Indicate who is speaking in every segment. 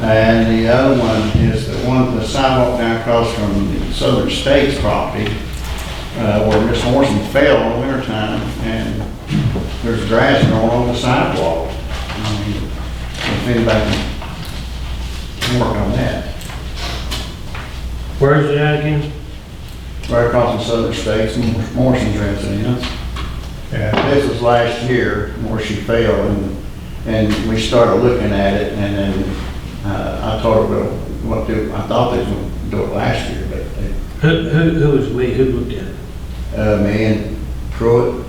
Speaker 1: And the other one is the one, the sidewalk down across from the Southern States property, uh, where Miss Morrison fell in the wintertime, and there's grass growing on the sidewalk. I mean, If anybody can work on that,
Speaker 2: Where's it at again?
Speaker 1: right across from Southern States, and Morrison's residence.
Speaker 3: Yeah,
Speaker 1: This was last year where she fell and, and we started looking at it and then, uh, I told her, well, what do, I thought they was gonna do it last year, but, they-
Speaker 2: Who, who, who was we, who looked at it?
Speaker 1: uh, me and Pruitt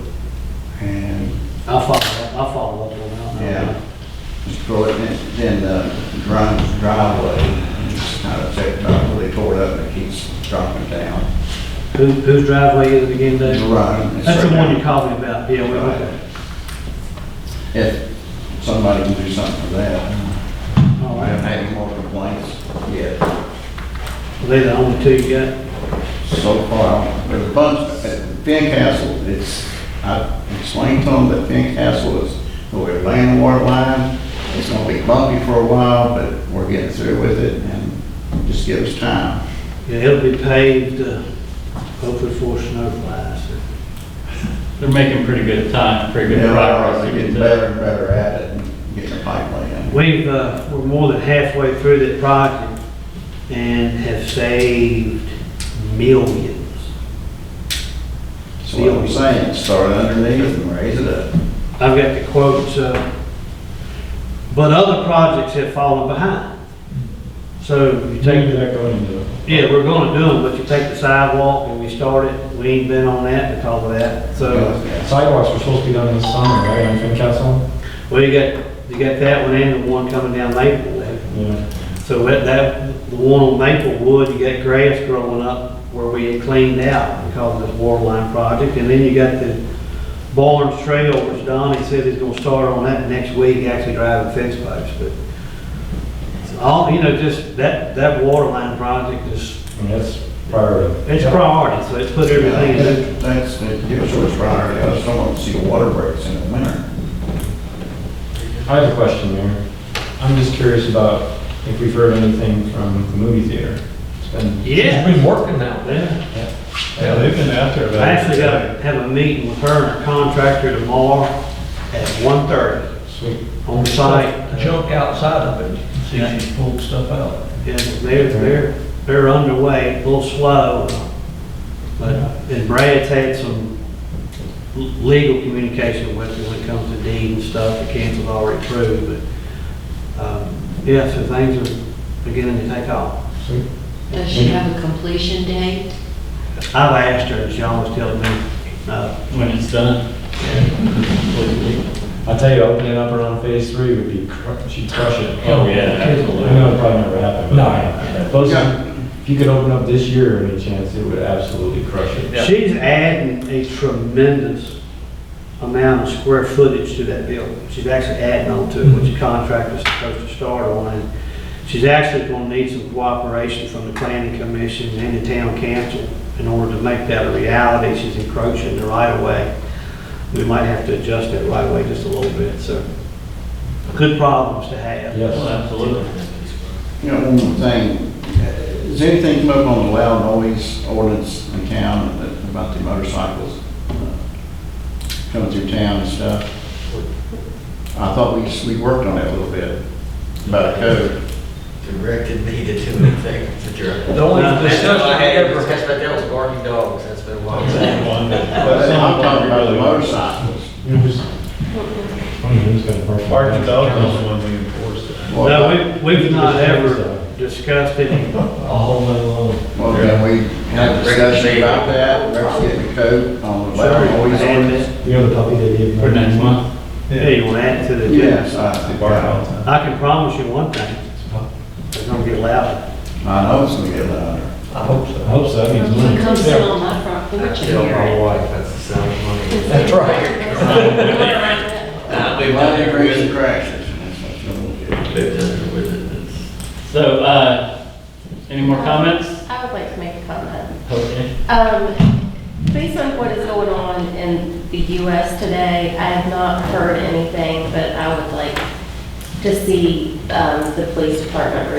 Speaker 1: and,
Speaker 2: I'll follow, up- I'll follow up on that.
Speaker 1: yeah, just Pruitt and then, uh, Grimes driveway. and It's kind of checked, probably tore it up and it keeps dropping down.
Speaker 2: Who, whose driveway is it again, Dave?
Speaker 1: Right.
Speaker 2: That's the one you called me about, yeah, we, okay.
Speaker 1: If somebody can do something for that.
Speaker 2: All
Speaker 1: I haven't
Speaker 2: right.
Speaker 1: had any more complaints yet.
Speaker 2: Well, They're the only two you got?
Speaker 1: So far, there's a bunch, at Castle, it's, I explained to them that Castle is, we're laying the water line, it's gonna be bumpy for a while, but we're getting through with it, and just give us time.
Speaker 2: Yeah, it'll be paved, uh, hopefully before snow flies.
Speaker 4: They're making pretty good time, pretty
Speaker 1: You
Speaker 4: good
Speaker 1: know,
Speaker 4: progress.
Speaker 1: They're getting better and better at it, and getting the pipe laying.
Speaker 2: We've, uh, we're more than halfway through that project and have saved millions.
Speaker 1: So what I'm saying, start underneath and raise it up.
Speaker 2: I've got the quotes, uh, but other projects have fallen behind. So you
Speaker 3: maybe
Speaker 2: take,
Speaker 3: that going into it.
Speaker 2: yeah, we're gonna do them, but you take the sidewalk and we start it, we ain't been on that because of that, so.
Speaker 3: Sidewalks were supposed to be done this summer, right, on Fincastle?
Speaker 2: Well, you got, you got that one and the one coming down Maple there.
Speaker 3: Yeah.
Speaker 2: So that, that, the one on Maplewood, you got grass growing up where we had cleaned out because of this water line project. And then you got the Barnes Trail, which Donnie said he's gonna start on that next week, actually driving fence posts, but it's all, you know, just that, that water line project is,
Speaker 3: I mean, that's priority.
Speaker 2: it's priority, so it's put everything in.
Speaker 1: That- That's, that gives us a priority, I just don't want to see water breaks in the winter.
Speaker 3: I have a question, Mayor. I'm just curious about if we've heard anything from the movie theater. It's been.
Speaker 2: Yeah,
Speaker 4: been working now.
Speaker 2: yeah.
Speaker 3: Yeah, they've been out there
Speaker 2: I actually gotta have a meeting with her and her contractor tomorrow at 1:30
Speaker 3: Sweet.
Speaker 2: on site.
Speaker 5: junk outside of it, see if you pull stuff out.
Speaker 2: Yeah, they're, they're, they're underway, a little slow. But, uh, and Brad's had some l- legal communication with them when it comes to deed and stuff, the council's already approved, but, um, yeah, so things are beginning to take off.
Speaker 3: Sweet.
Speaker 6: Does she have a completion date?
Speaker 2: I've asked her, and she always tells me, uh, no.
Speaker 4: When it's done.
Speaker 3: I'll tell you, opening up around phase three would be, cr- she'd crush it.
Speaker 4: Oh, yeah, absolutely.
Speaker 3: I know it probably never happened. No. Those,
Speaker 1: Yeah.
Speaker 3: if you could open up this year, any chance, it would absolutely crush it.
Speaker 4: Yeah.
Speaker 2: She's adding a tremendous amount of square footage to that building. She's actually adding on to it, which the contract was supposed to start on. And She's actually gonna need some cooperation from the planning commission and the town council in order to make that a reality. She's encroaching the right of way. We might have to adjust that right of way just a little bit, so good problems to have.
Speaker 4: Well,
Speaker 3: Yes.
Speaker 4: absolutely.
Speaker 1: You know, one more thing, uh, is anything come up on the loud noise ordinance in town that- about the motorcycles uh, coming through town and stuff? I thought we, we worked on that a little bit, about a code.
Speaker 7: directed me to do anything to jerk.
Speaker 5: The only
Speaker 2: No, that's
Speaker 5: discussion I ever had,
Speaker 7: Discussed about that was barking dogs, that's been a while.
Speaker 1: But I'm talking about the motorcycles.
Speaker 3: You just- I mean, who's gonna park?
Speaker 8: Mark Development is the one we enforced it.
Speaker 1: Well,
Speaker 2: No, we, we've not ever discussed any
Speaker 3: a whole lot of-
Speaker 1: Well, then we had a discussion about that, let's get the code on the loud noise ordinance.
Speaker 3: You know the puppy they gave? me?
Speaker 4: For next month.
Speaker 2: Yeah, you want to add to the.
Speaker 1: Yes, I think, I
Speaker 2: I can promise you one thing, it's gonna get louder.
Speaker 1: know it's gonna get louder.
Speaker 5: I hope
Speaker 3: I
Speaker 5: so.
Speaker 3: hope so, that means money.
Speaker 6: You come sit on my front porch and
Speaker 7: Tell
Speaker 6: hear
Speaker 7: my
Speaker 6: it.
Speaker 7: wife, that's the sound of money.
Speaker 3: Uh,
Speaker 5: That's right.
Speaker 7: Nah, we've
Speaker 1: Well,
Speaker 7: done
Speaker 1: it
Speaker 7: it
Speaker 1: brings the
Speaker 7: with it.
Speaker 1: crashes, and that's what you're gonna get.
Speaker 7: We've done it with
Speaker 4: So, uh, any more comments?
Speaker 9: I would like to make a comment.
Speaker 4: Okay.
Speaker 9: Um, Based on what is going on in the US today, I have not heard anything, but I would like to see um, the police department